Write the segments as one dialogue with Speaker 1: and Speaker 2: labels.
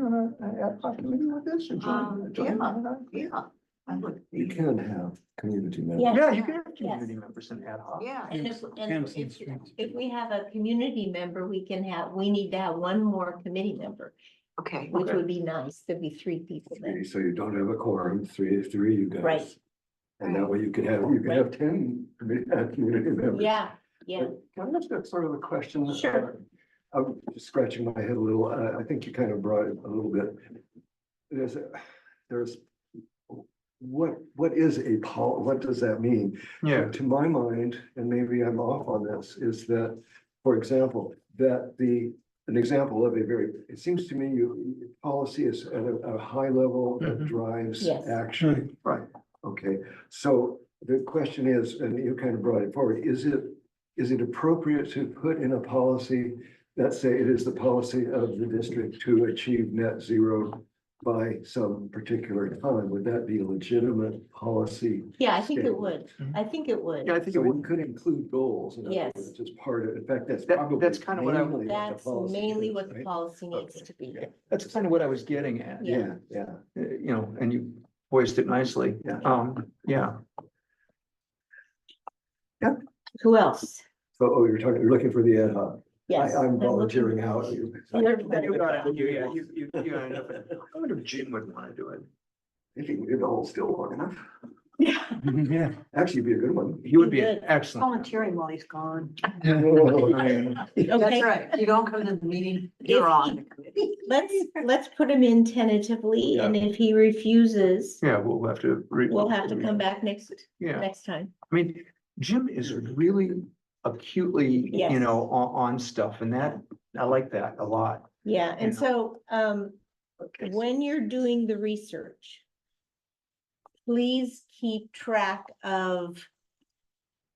Speaker 1: want to have possibility with this? or join-
Speaker 2: Um,
Speaker 1: join-
Speaker 2: yeah. Yeah. I would
Speaker 3: You
Speaker 2: be-
Speaker 3: can have community members.
Speaker 4: Yeah.
Speaker 1: Yeah, you can have
Speaker 4: Yes.
Speaker 1: community members and ad hoc.
Speaker 2: Yeah.
Speaker 4: And if, and
Speaker 5: Cancel
Speaker 4: if,
Speaker 5: streets.
Speaker 4: if we have a community member, we can have, we need to have one more committee member,
Speaker 2: Okay.
Speaker 4: which
Speaker 1: Okay.
Speaker 4: would be nice. There'd be three people then.
Speaker 3: Three, So you don't have a quorum, three, three you guys.
Speaker 4: Right.
Speaker 3: And that way you could have, you could have ten commu- uh, community members.
Speaker 4: Yeah, yeah.
Speaker 3: Can I ask a sort of a question?
Speaker 4: Sure.
Speaker 3: Uh, I'm just scratching my head a little. I, I think you kind of brought it a little bit. There's, a- there's, what, what is a pol, what does that mean?
Speaker 1: Yeah.
Speaker 3: To my mind, and maybe I'm off on this, is that, for example, that the, an example of a very, it seems to me you, you- policy is at a, a high level that
Speaker 1: Mhm.
Speaker 3: drives
Speaker 4: Yes.
Speaker 3: action. Right. Okay, so the question is, and you kind of brought it forward, is it, is it appropriate to put in a policy? Let's say it is the policy of the district to achieve net zero by some particular time. Would that be a legitimate policy?
Speaker 4: Yeah, I think it
Speaker 3: Statement.
Speaker 4: would. I think it would.
Speaker 1: Yeah, I think it
Speaker 3: So
Speaker 1: would,
Speaker 3: it could include goals. and
Speaker 4: Yes.
Speaker 3: It's just part of, in fact, that's
Speaker 1: That-
Speaker 3: probably.
Speaker 1: that's kinda what I-
Speaker 3: mainly the
Speaker 4: That's
Speaker 3: policy
Speaker 4: mainly
Speaker 3: is,
Speaker 4: what the
Speaker 3: right?
Speaker 4: policy needs to be.
Speaker 1: that's kind of what I was getting at, uh,
Speaker 4: Yeah.
Speaker 3: Yeah, yeah.
Speaker 1: you know, and you voiced it nicely.
Speaker 3: Yeah.
Speaker 1: Um, yeah,
Speaker 4: Who else?
Speaker 3: So, oh, you're talking, you're looking for the ad hoc.
Speaker 4: Yes.
Speaker 3: I, I'm
Speaker 4: looking-
Speaker 3: volunteering out.
Speaker 4: You're-
Speaker 1: You got it. You- yeah, you- you- you got enough. I wonder if Jim would want to do it.
Speaker 3: If you leave the hole still long enough,
Speaker 5: Yeah.
Speaker 3: actually it'd be a good one.
Speaker 1: He would be
Speaker 4: He
Speaker 1: an
Speaker 4: did.
Speaker 1: excellent.
Speaker 2: Volunteering while he's gone.
Speaker 4: Okay.
Speaker 2: That's right. You don't come to the meeting, you're on the committee.
Speaker 4: Let's, let's put him in tentatively and if he refuses,
Speaker 1: Yeah, we'll have to. re-
Speaker 4: we'll have to come back next,
Speaker 1: Yeah.
Speaker 4: next time.
Speaker 1: I mean, Jim is really acutely, you
Speaker 4: Yes.
Speaker 1: know, on, on stuff and that, I like that a lot.
Speaker 4: Yeah, and
Speaker 1: Yeah.
Speaker 4: so, um,
Speaker 1: Okay.
Speaker 4: when you're doing the research, please keep track of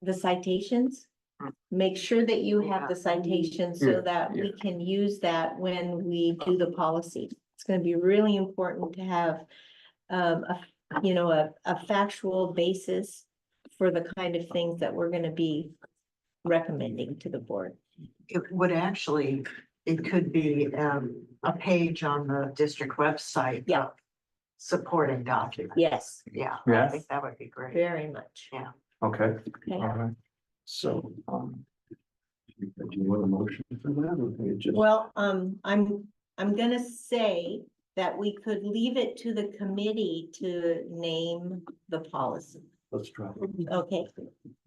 Speaker 4: the citations. Make sure that you have the citations
Speaker 1: Hmm. Yeah, Hmm.
Speaker 4: so that we
Speaker 1: yeah.
Speaker 4: can use that when we do the policy. It's gonna be really important to have um, a, you know, a, a factual basis for the kind of things that we're gonna be recommending to the board.
Speaker 2: It would actually, it could be um a page on the district website.
Speaker 4: Yeah.
Speaker 2: Supporting document.
Speaker 4: Yes,
Speaker 2: Yeah, I
Speaker 1: Yeah,
Speaker 2: think that would be great.
Speaker 4: very much.
Speaker 1: okay,
Speaker 4: Okay.
Speaker 1: all right. So, um,
Speaker 3: Do you want a motion for that? or can you just-
Speaker 4: Well, um, I'm, I'm gonna say that we could leave it to the committee to name the policy.
Speaker 3: Let's try.
Speaker 4: Okay,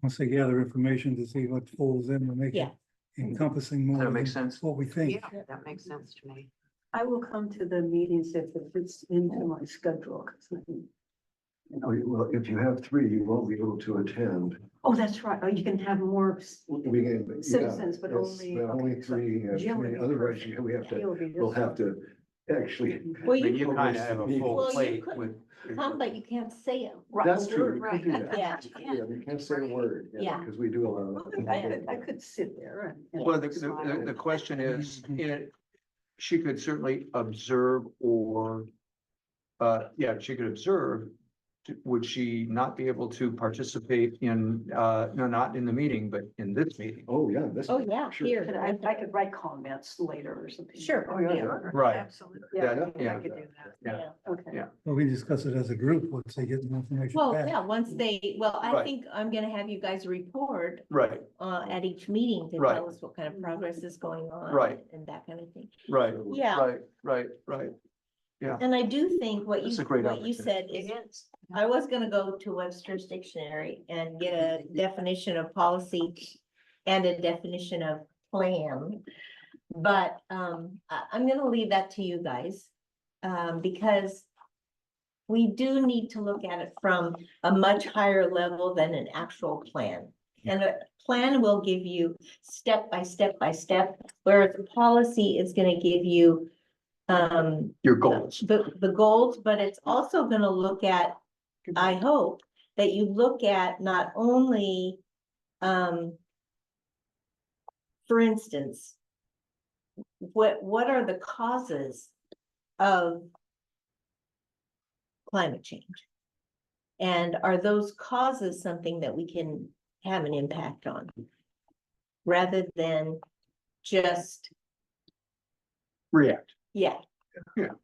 Speaker 5: Once they gather information to see what falls in, we'll make it
Speaker 4: Yeah.
Speaker 5: encompassing more.
Speaker 1: that makes
Speaker 5: than
Speaker 1: sense.
Speaker 5: What we think.
Speaker 2: Yeah, that makes sense to me.
Speaker 6: I will come to the meetings if it fits into my schedule. 'cause I'm-
Speaker 3: Oh, you- Well, if you have three, you won't be able to attend.
Speaker 6: Oh, that's right. Oh, you can have more. s-
Speaker 3: We can. yeah,
Speaker 6: Citizens, but
Speaker 3: it's-
Speaker 6: only-
Speaker 3: but Only
Speaker 6: okay, so
Speaker 3: three, uh,
Speaker 6: Jim would
Speaker 3: three.
Speaker 6: be
Speaker 3: otherwise
Speaker 6: perfect.
Speaker 3: you- we have to,
Speaker 6: He'll be this
Speaker 3: we'll have
Speaker 6: one.
Speaker 3: to actually.
Speaker 4: well,
Speaker 1: I
Speaker 4: you
Speaker 1: mean, you kind of have a full
Speaker 4: Well, you
Speaker 1: plate
Speaker 4: could
Speaker 1: with.
Speaker 4: can come, but you can't say it.
Speaker 2: Right,
Speaker 3: That's true, we
Speaker 2: Right.
Speaker 3: could do that.
Speaker 4: Yeah.
Speaker 3: Yeah, we can't say a
Speaker 2: Right.
Speaker 3: word.
Speaker 4: Yeah.
Speaker 3: Because we do allow.
Speaker 6: Well, I could, I could sit there and. and
Speaker 1: Well, uh, the,
Speaker 6: smile.
Speaker 1: the, the question is, it, she could certainly observe or, uh, yeah, she could observe. Would she not be able to participate in, uh, no, not in the meeting, but in this meeting?
Speaker 3: Oh, yeah, this.
Speaker 4: Oh, yeah,
Speaker 3: sure.
Speaker 6: But
Speaker 4: here.
Speaker 6: I, I could write comments later or something.
Speaker 4: Sure.
Speaker 3: Oh, yeah, yeah.
Speaker 1: Right,
Speaker 2: Absolutely.
Speaker 3: yeah,
Speaker 6: Yeah, I
Speaker 1: yeah.
Speaker 6: could do that.
Speaker 1: yeah.
Speaker 6: Okay.
Speaker 1: Yeah.
Speaker 5: Well, we discuss it as a group, once they get the information
Speaker 4: Well,
Speaker 5: back.
Speaker 4: yeah, once they, well, I
Speaker 1: Right.
Speaker 4: think I'm gonna have you guys report
Speaker 1: right,
Speaker 4: uh at each meeting to
Speaker 1: Right.
Speaker 4: tell us what kind of progress is going on.
Speaker 1: Right.
Speaker 4: And that kind of thing.
Speaker 1: right,
Speaker 4: Yeah.
Speaker 1: right, right, right.
Speaker 4: And I do think what
Speaker 1: That's
Speaker 4: you,
Speaker 1: a great
Speaker 4: what you
Speaker 1: opportunity.
Speaker 4: said is
Speaker 2: It is.
Speaker 4: I was gonna go to Webster's dictionary and get a definition of policy and a definition of plan. But um, I, am gonna leave that to you guys, um, because we do need to look at it from a much higher level than an actual plan. And a plan will give you step by step by step, whereas a policy is gonna give you um,
Speaker 1: Your goals.
Speaker 4: the, the goals, but it's also gonna look at, I hope, that you look at not only, um, for instance, what, what are the causes of climate change? And are those causes something that we can have an impact on? Rather than just,
Speaker 1: React.
Speaker 4: yeah.
Speaker 1: Yeah.